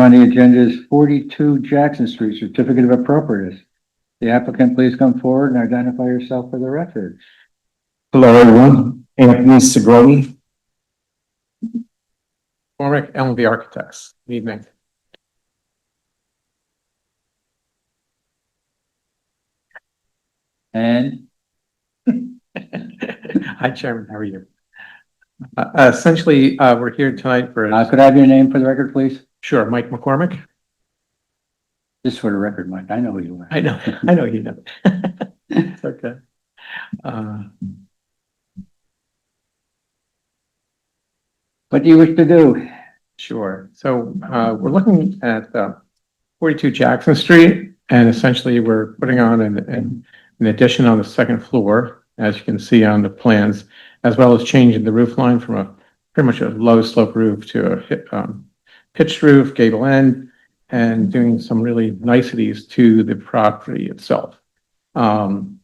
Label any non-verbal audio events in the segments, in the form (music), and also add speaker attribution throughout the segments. Speaker 1: On the agenda is forty-two Jackson Street, certificate of appropriateness. The applicant, please come forward and identify yourself for the record.
Speaker 2: Hello, everyone. Anthony Segroni.
Speaker 3: Warwick LMV Architects, good evening.
Speaker 1: And
Speaker 3: Hi Chairman, how are you? Uh, essentially, uh, we're here tonight for,
Speaker 1: uh, could I have your name for the record, please?
Speaker 3: sure, Mike McCormick.
Speaker 1: Just for the record, Mike, I know who you are.
Speaker 3: I know, I know you know. (laughs) It's okay. Uh,
Speaker 1: What do you wish to do?
Speaker 3: Sure. So uh, we're looking at uh, 42 Jackson Street, and essentially we're putting on an- an an addition on the second floor, as you can see on the plans, as well as changing the roof line from a pretty much a low slope roof to a hi- um, pitched roof, gable end, and doing some really niceties to the property itself. Um,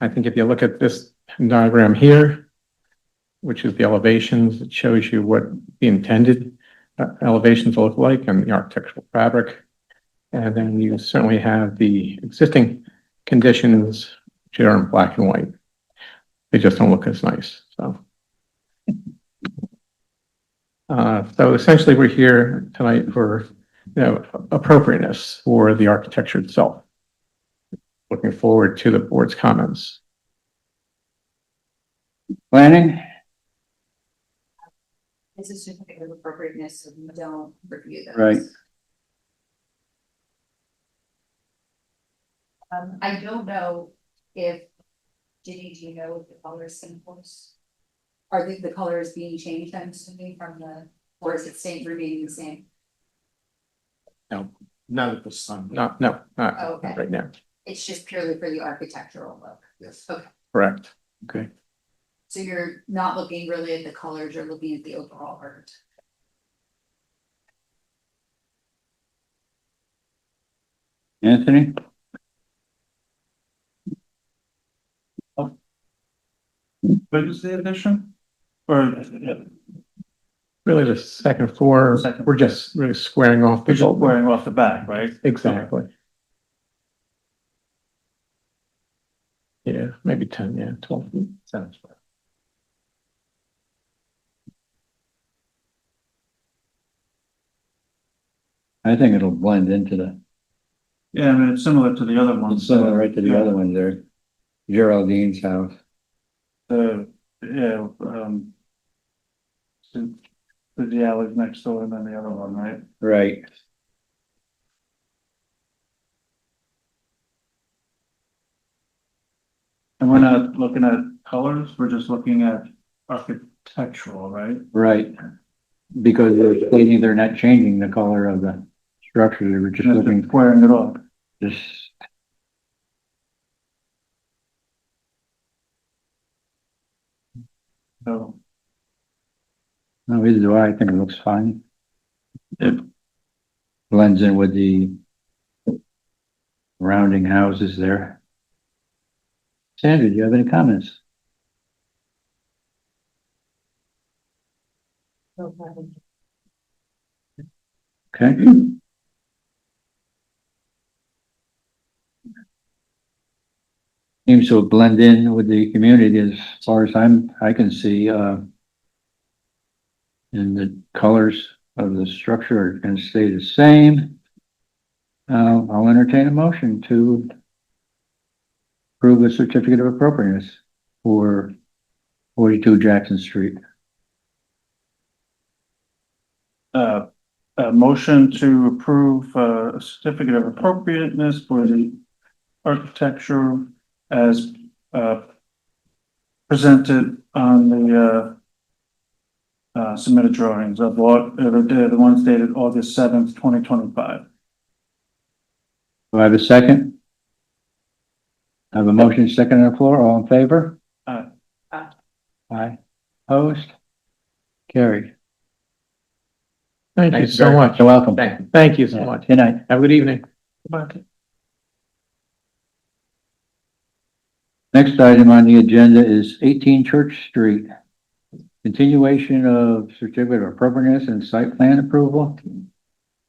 Speaker 3: I think if you look at this diagram here, which is the elevations, it shows you what the intended uh, elevations look like and the architectural fabric. And then you certainly have the existing conditions, which are in black and white. They just don't look as nice, so. Uh, so essentially, we're here tonight for, you know, appropriateness for the architecture itself. Looking forward to the board's comments.
Speaker 1: Planning?
Speaker 4: It's a certificate of appropriateness, so we don't review those.
Speaker 1: Right.
Speaker 4: Um, I don't know if, Ginny, do you know if the colors samples? Are the, the colors being changed, I'm assuming, from the, or is it staying, remaining the same?
Speaker 2: Not at the sun.
Speaker 3: No, no, not not
Speaker 4: Okay.
Speaker 3: right now.
Speaker 4: It's just purely for the architectural look.
Speaker 2: Yes.
Speaker 4: Okay,
Speaker 3: Correct.
Speaker 4: so you're not looking really at the colors, you're looking at the overall art.
Speaker 1: Anthony?
Speaker 2: What is the addition? Or?
Speaker 3: Really, the second floor,
Speaker 2: Second.
Speaker 3: we're just really squaring off the
Speaker 2: It's all
Speaker 3: building.
Speaker 2: wearing off the back, right?
Speaker 3: Exactly. Yeah, maybe ten, yeah, twelve. feet.
Speaker 2: Sounds right.
Speaker 1: I think it'll blend into the,
Speaker 5: Yeah, I mean, it's similar to the other
Speaker 1: it's
Speaker 5: ones.
Speaker 1: similar right to the other one there. Geraldine's house.
Speaker 5: Uh, yeah, um. to- to The alley next door and then the other one, right?
Speaker 1: Right.
Speaker 5: And we're not looking at colors, we're just looking at architectural, right?
Speaker 1: Right. Because they're stating they're not changing the color of the structure, they were just
Speaker 5: Just
Speaker 1: looking,
Speaker 5: squaring it off.
Speaker 1: just.
Speaker 5: So
Speaker 1: No, either do I, I think it looks fine.
Speaker 5: Yep.
Speaker 1: Blends in with the rounding houses there. Sandra, do you have any comments?
Speaker 4: No problem.
Speaker 1: Okay, seems to blend in with the community as far as I'm, I can see, uh, and the colors of the structure are gonna stay the same. Uh, I'll entertain a motion to approve a certificate of appropriateness for forty-two Jackson Street.
Speaker 5: Uh, a motion to approve uh, a certificate of appropriateness for the architecture as, uh, presented on the, uh, uh, submitted drawings of what, uh, the, the ones dated August seventh, twenty twenty-five.
Speaker 1: Do I have a second? I have a motion second on the floor, all in favor?
Speaker 5: Aye.
Speaker 4: Aye.
Speaker 1: Aye. Opposed? Carried.
Speaker 3: Thank you so
Speaker 1: very
Speaker 3: much.
Speaker 1: You're welcome.
Speaker 3: Thank, thank you so much.
Speaker 1: Good night.
Speaker 3: Have a good evening.
Speaker 1: Next item on the agenda is eighteen Church Street. Continuation of certificate of appropriateness and site plan approval.